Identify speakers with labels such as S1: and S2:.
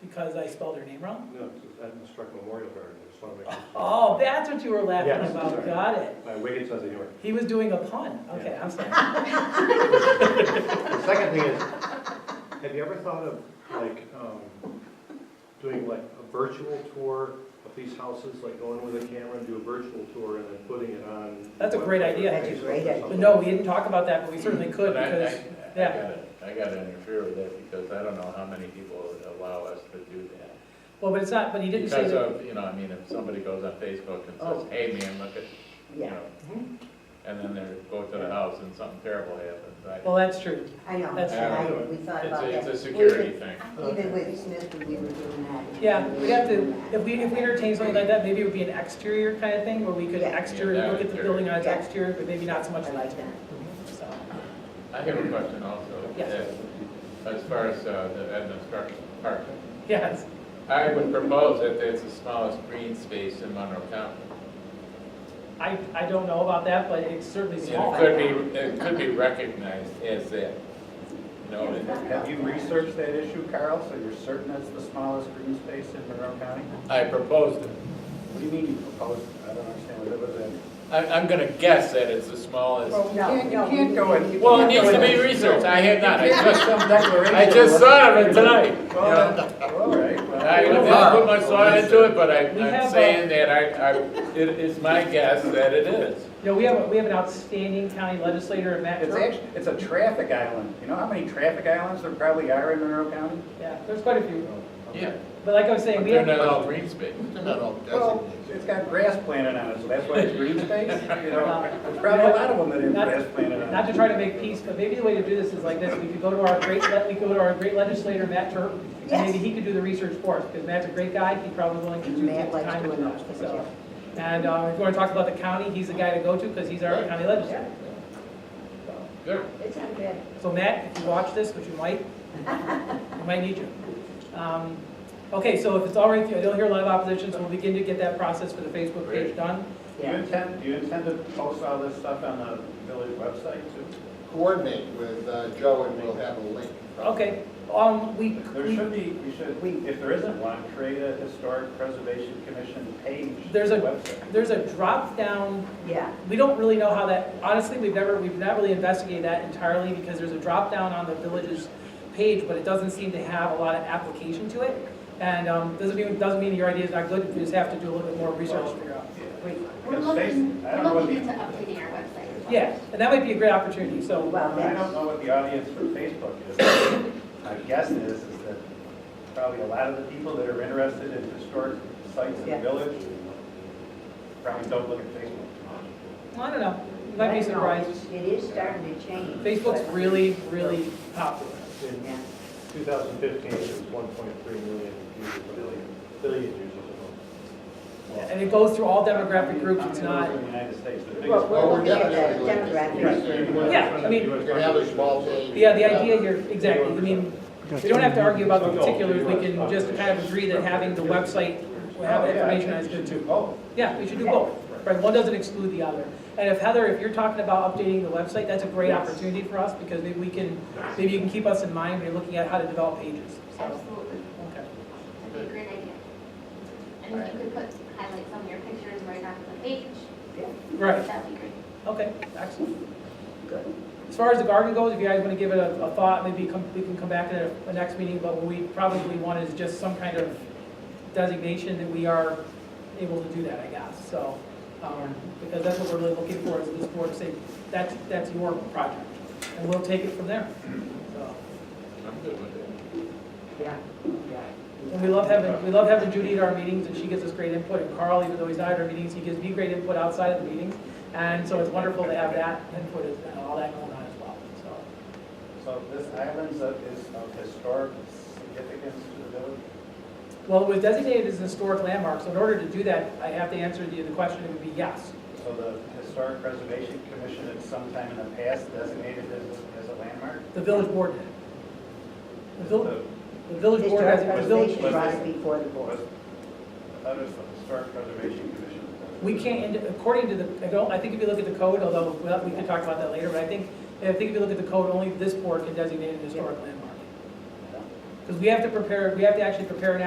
S1: because I spelled her name wrong?
S2: No, it's at the Struck Memorial Garden, I just want to make.
S1: Oh, that's what you were laughing
S2: Yes,
S1: about,
S2: sorry.
S1: got it.
S2: My wicked sense of humor.
S1: He was doing a pun, okay,
S2: Yeah.
S1: I'm sorry.
S2: The second thing is, have you ever thought of like, um, doing like a virtual tour of these houses, like going with a camera and do a virtual tour and then putting it on?
S1: That's a great idea.
S3: That's a great idea.
S1: But no, we didn't talk about that, but we certainly could,
S4: But I- I-
S1: because,
S4: I
S1: yeah.
S4: gotta- I gotta interfere with that because I don't know how many people allow us to do that.
S1: well, but it's not, but he didn't say
S4: Because
S1: that.
S4: of, you know, I mean, if somebody goes on Facebook and
S3: Oh.
S4: says, hey man, look at, you
S3: Yeah,
S4: know,
S1: Mm-hmm.
S4: and then they go to the house and something terrible happens, I,
S1: Well, that's true.
S3: I know,
S1: That's
S3: and I,
S4: true.
S3: we thought
S4: it's
S3: about
S4: a,
S3: that.
S4: it's a security thing.
S3: Even with Smith, we were doing that.
S1: Yeah, we have to, if we, if we entertain something like that, maybe it would be an exterior kind of thing, where we could
S3: Yeah.
S1: exterior,
S4: Yeah, that
S1: look at
S4: would
S1: the
S4: be
S1: building on its
S3: Yeah.
S1: exterior, but maybe not so much
S3: I
S1: light.
S3: like that.
S1: So,
S4: I have a question also.
S1: Yes.
S4: that- As far as uh, the Edna Stark Park,
S1: yes,
S4: I would propose that it's the smallest green space in Monroe County.
S1: I, I don't know about that, but it's certainly
S4: And
S1: small.
S4: It could be, it could be recognized as that. You know,
S5: Oh, Have you researched that issue, Carl, so you're certain it's the smallest green space in Monroe County?
S4: I proposed it.
S5: What do you mean you proposed, it? I don't understand what it was in.
S4: I, I'm gonna guess that it's the smallest.
S5: Well, you
S3: No,
S5: can't, you
S3: no,
S5: can't
S3: we-
S5: go and. you
S4: Well, it
S5: can't
S4: needs
S5: go
S4: to be
S5: and-
S4: researched, I had not, I
S5: You can't
S4: just,
S5: Some declaration.
S4: I just thought of it tonight.
S5: Well, then, all right. well,
S4: I
S5: we don't
S4: didn't put
S5: know.
S4: much thought into it, but I,
S1: We have
S4: I'm
S1: a-
S4: saying that I, I, it is my guess that it is.
S1: You know, we have, a- we have an outstanding county legislator in Matt
S5: It's
S1: Turp.
S5: actually, it's a traffic island, you know how many traffic islands there probably are in Monroe County?
S1: Yeah, there's quite a few.
S4: Yeah,
S1: But like I was saying,
S4: but
S1: we
S4: they're
S1: have,
S4: not all green space.
S6: They're not all
S5: Well,
S6: designated.
S5: it's got grass planted on it, so that's why it's green space, you know,
S1: Well,
S5: there's probably a lot of them that have
S1: not-
S5: grass planted on it.
S1: not to try to make peace, but maybe the way to do this is like this, we could go to our great, le- we could go to our great legislator, Matt Turp, and
S3: Yes.
S1: maybe he could do the research for us, because Matt's a great guy, he probably willing to
S3: And
S1: do
S3: Matt
S1: the
S3: likes
S1: time
S3: doing
S1: and
S3: those,
S1: stuff,
S3: yeah.
S1: so. And, um, if you wanna talk about the county, he's the guy to go to, because he's our county legislator.
S4: They're-
S3: It's not bad.
S1: So Matt, if you watch this, which you might, we might need you. Um, Okay, so if it's all right, with you, I don't hear a lot of opposition, so we'll begin to get that process for the Facebook page done.
S5: Do you
S3: Yeah.
S5: intend, do you intend to post all this stuff on the village website too?
S6: Coordinate with uh, Joe and we'll have a link.
S1: Okay, um, we,
S5: There
S1: we-
S5: should be, you should, if there isn't one, create a historic preservation commission page.
S1: There's a-
S5: website.
S1: there's a drop-down
S3: Yeah,
S1: We don't really know how that, honestly, we've never, we've not really investigated that entirely because there's a drop down on the village's page, but it doesn't seem to have a lot of application to it. And um, doesn't mean, doesn't mean your idea is not good, you just have to do a little bit more research to figure out.
S3: we,
S7: We're
S5: Because face-
S7: looking,
S5: I don't
S7: we're
S5: know what
S7: looking
S5: the-
S7: into updating our website. as well.
S1: Yeah, and that might be a great opportunity, so,
S3: well,
S5: I don't
S3: that's,
S5: know what the audience for Facebook is. My guess is, is that probably a lot of the people that are interested in historic sites in the
S3: Yeah.
S5: village probably don't look at Facebook.
S1: well, I don't know, you might be
S3: I know,
S1: surprised.
S3: it's- It is starting to change.
S1: Facebook's
S3: but-
S1: really, really popular.
S2: In
S3: Yeah.
S2: 2015, it was 1.3 million users, billion, billion users a month.
S1: And it goes through all demographic groups, it's not,
S5: In the United States, the biggest-
S3: Well, we're
S6: Well, Oh, we're
S3: looking at
S6: definitely
S3: the
S6: looking at
S3: demographics.
S1: yeah, I mean,
S6: You can have a small page.
S1: yeah, the idea here, exactly, I mean, we don't have to argue about the particulars, we can just kind of agree that having the website,
S5: Oh,
S1: have
S5: yeah, I
S1: information
S5: think
S1: is
S5: you
S1: good
S5: should
S1: too.
S5: do both.
S1: Yeah, we should do both, right, one doesn't exclude the other. And if Heather, if you're talking about updating the website, that's a great
S5: Yes.
S1: opportunity for us, because maybe we can, maybe you can keep us in mind when you're looking at how to develop pages, so,
S7: Absolutely.
S1: okay.
S7: That'd be a great idea. And you could put, highlight some of your pictures right on the page.
S1: Right,
S7: That'd be great.
S1: okay, excellent.
S3: Good.
S1: As far as the garden goes, if you guys wanna give it a, a thought, maybe come, we can come back at a- a next meeting, but what we probably want is just some kind of designation that we are able to do that, I guess, so. Um, because that's what we're really looking for, is this board to say, that's, that's your project, and we'll take it from there, so.
S4: I'm good with it.
S3: Yeah, yeah.
S1: And we love having, we love having Judy at our meetings, and she gives us great input, and Carl, even though he's not at our meetings, he gives me great input outside of the meetings, and so it's wonderful to have that input and all that going on as well, so.
S5: So this island is of historic significance to the village?
S1: Well, it was designated as a historic landmark, so in order to do that, I have to answer the, the question, it would be yes.
S5: So the Historic Preservation Commission at some time in the past designated as, as a landmark?
S1: The village board did. The village,
S5: So
S1: the village board has, the
S3: Historic
S1: village,
S3: preservation brought it before the board.
S5: was, I thought it was the Historic Preservation Commission.
S1: we can't, and according to the, I don't, I think if you look at the code, although, well, we can talk about that later, but I think, I think if you look at the code, only this board can designate it a historic landmark. Because we have to prepare, we have to actually prepare an